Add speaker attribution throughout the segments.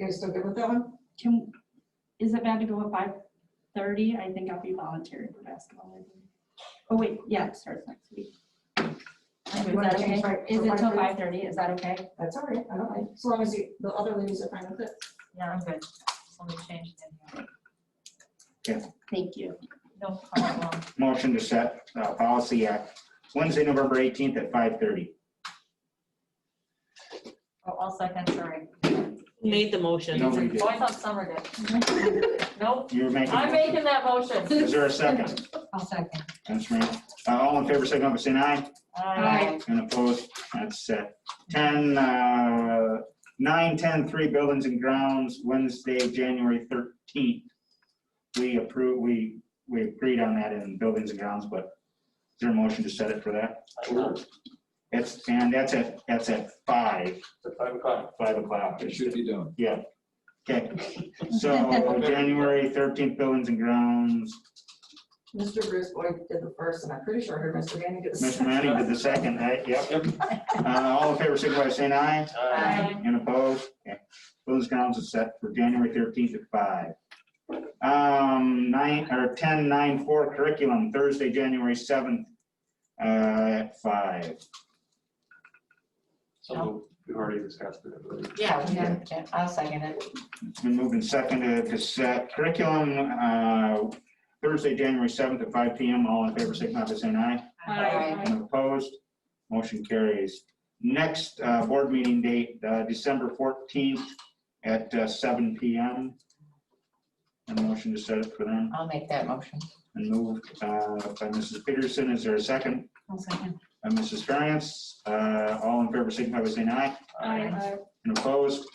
Speaker 1: guys still good with that one?
Speaker 2: Can, is it bad to go at five thirty? I think I'll be volunteering for basketball. I think. Oh, wait, yeah, it starts next week. Is
Speaker 1: You wanna
Speaker 2: that okay?
Speaker 1: change my-
Speaker 2: Is
Speaker 1: for
Speaker 2: it till
Speaker 1: 5:30?
Speaker 2: five thirty? Is that okay?
Speaker 1: That's all right, I don't mind, as long as you- the other ladies are fine with it.
Speaker 3: Yeah, I'm good. Just let me change it in here.
Speaker 2: Thank you.
Speaker 3: No problem.
Speaker 4: Motion to set uh, Policy Act Wednesday, November 18th at 5:30.
Speaker 3: Oh, I'll second, sorry.
Speaker 5: Made the motion.
Speaker 4: No, we did.
Speaker 3: Oh, I thought Summer did. Nope,
Speaker 4: You were making.
Speaker 3: I'm making that motion.
Speaker 4: Is there a second?
Speaker 3: I'll second.
Speaker 4: That's right. Uh, All in favor, signify by saying aye.
Speaker 3: Aye.
Speaker 4: And opposed, that's set. 10, uh, 9, 10, 3 Buildings and Grounds, Wednesday, January 13th. We approve, we, we agreed on that in Buildings and Grounds, but is there a motion to set it for that?
Speaker 6: Sure,
Speaker 4: That's, and that's at, that's at 5,
Speaker 6: it's five o'clock.
Speaker 4: 5 o'clock.
Speaker 7: It should be done.
Speaker 4: Okay, so January 13th, Buildings and Grounds,
Speaker 1: Mr. Bruce Boyd did the first, and I'm pretty sure I heard Mr. Manning did the
Speaker 4: Mr.
Speaker 1: second.
Speaker 4: Manning did the second, right? Yep.
Speaker 6: Yep.
Speaker 4: Uh, All in favor, signify by saying aye.
Speaker 6: Aye.
Speaker 4: And opposed? Okay. Those grounds are set for January 13th at 5. Um, 9, or 10, 9, 4 curriculum, Thursday, January 7th uh, at 5.
Speaker 6: So we've already discussed it. I believe.
Speaker 3: Yeah, we have- yeah, I'll second it.
Speaker 4: It's been moved and seconded to set curriculum uh, Thursday, January 7th at 5 PM. All in favor, signify by saying aye.
Speaker 3: Aye.
Speaker 4: And opposed, motion carries. Next uh, board meeting date, uh, December 14th at uh, 7 PM. And motion to set it for them.
Speaker 3: I'll make that motion.
Speaker 4: And moved uh, by Mrs. Peterson. Is there a second?
Speaker 3: I'll second.
Speaker 4: By Mrs. Ferriant. Uh All in favor, signify by saying aye. And opposed?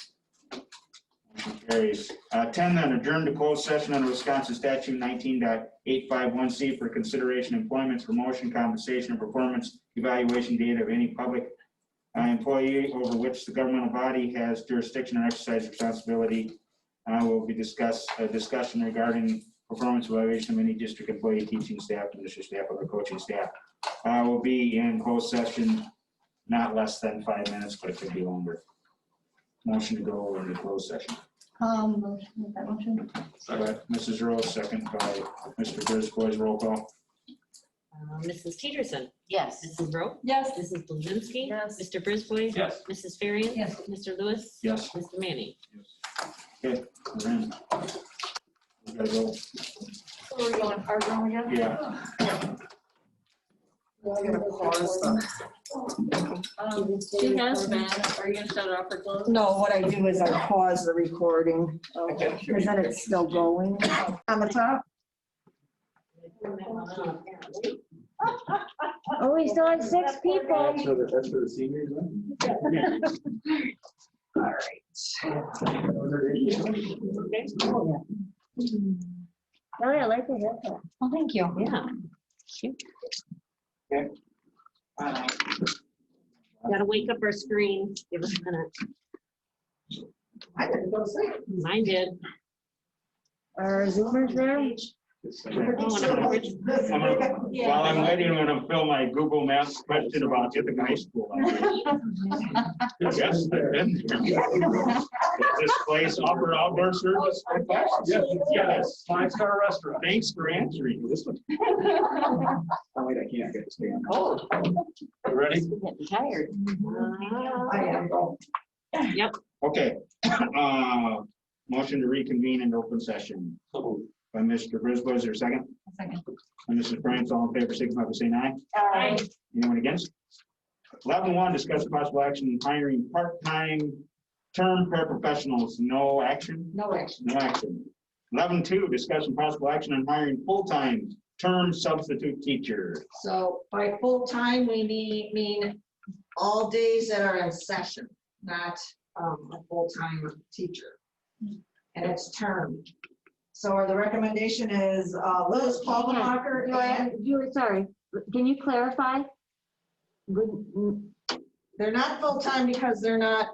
Speaker 4: Motion carries. Uh, 10, then adjourn to closed session under Wisconsin statute 19.851C for consideration employment, promotion, compensation, and performance evaluation data of any public uh, employee over which the governmental body has jurisdiction or exercise responsibility. Uh, Will be discuss, a discussion regarding performance evaluation of any district employee, teaching staff, administrative staff, or coaching staff. Uh, Will be in closed session not less than five minutes, but it could be longer. Motion to go into closed session.
Speaker 2: Um, motion, make that motion.
Speaker 6: Second.
Speaker 4: But Mrs. Rose, second by Mr. Brisboy's roll call.
Speaker 5: Uh, Mrs. Peterson.
Speaker 3: Yes.
Speaker 5: Mrs. Rowe.
Speaker 2: Yes.
Speaker 5: Mrs. Blazinski.
Speaker 3: Yes.
Speaker 5: Mr. Brisboy.
Speaker 6: Yes.
Speaker 5: Mrs. Ferriant.
Speaker 3: Yes.
Speaker 5: Mr. Lewis.
Speaker 4: Yes.
Speaker 5: Mr. Manning.
Speaker 4: we're in. We gotta go.
Speaker 3: So we're going hard on again?
Speaker 4: Yeah,
Speaker 3: Um, she has been, are you gonna shut it off or close?
Speaker 8: No, what I do is I pause the recording, because then it's still going on the top. Oh, we still have six people.
Speaker 6: That's for the, that's for the seniors, huh?
Speaker 8: All right. Oh, I like the haircut.
Speaker 3: Well, thank you.
Speaker 5: Yeah. Gotta wake up our screen. Give us a minute.
Speaker 1: I didn't go see it.
Speaker 5: Mine did.
Speaker 8: Are Zoomers there?
Speaker 6: Just-
Speaker 5: Oh, and I'm rich.
Speaker 4: I'm gonna- While I'm waiting, I'm gonna fill my Google Maps question about Ithaca High School. Yes, I've been there. This place offer outdoor service. Yes,
Speaker 6: Five star restaurant.
Speaker 4: thanks for answering. This one.
Speaker 6: Oh, wait, I can't get this down. Oh. You ready?
Speaker 5: Getting tired. Uh,
Speaker 1: I am going.
Speaker 4: Okay. Uh, Motion to reconvene in open session
Speaker 6: So moved.
Speaker 4: by Mr. Brisboy. Is there a second?
Speaker 3: Second.
Speaker 4: And Mrs. Bryant, all in favor, signify by saying aye. Anyone against? Eleven one, discuss possible action hiring part-time term paraprofessionals, no action,
Speaker 1: No action.
Speaker 4: no action. Eleven two, discuss and possible action on hiring full-time term substitute teacher.
Speaker 1: So by full-time, we need, mean all days that are in session, not um, a full-time teacher. And it's term. So the recommendation is uh, Liz Paulbacher, go ahead.
Speaker 8: Julie, sorry, can you clarify? mm, Wouldn't-
Speaker 1: They're not full-time because they're not,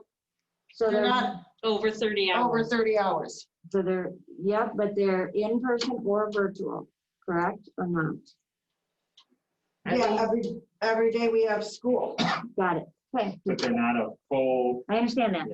Speaker 8: So
Speaker 1: they're
Speaker 8: they're,
Speaker 1: not
Speaker 5: Over thirty
Speaker 1: over
Speaker 5: hours.
Speaker 1: 30 hours.
Speaker 8: so they're, yeah, but they're in person or virtual, correct or not?
Speaker 1: Yeah, every, every day we have school.
Speaker 8: Got it. Okay,
Speaker 4: But they're not a full
Speaker 8: I understand that.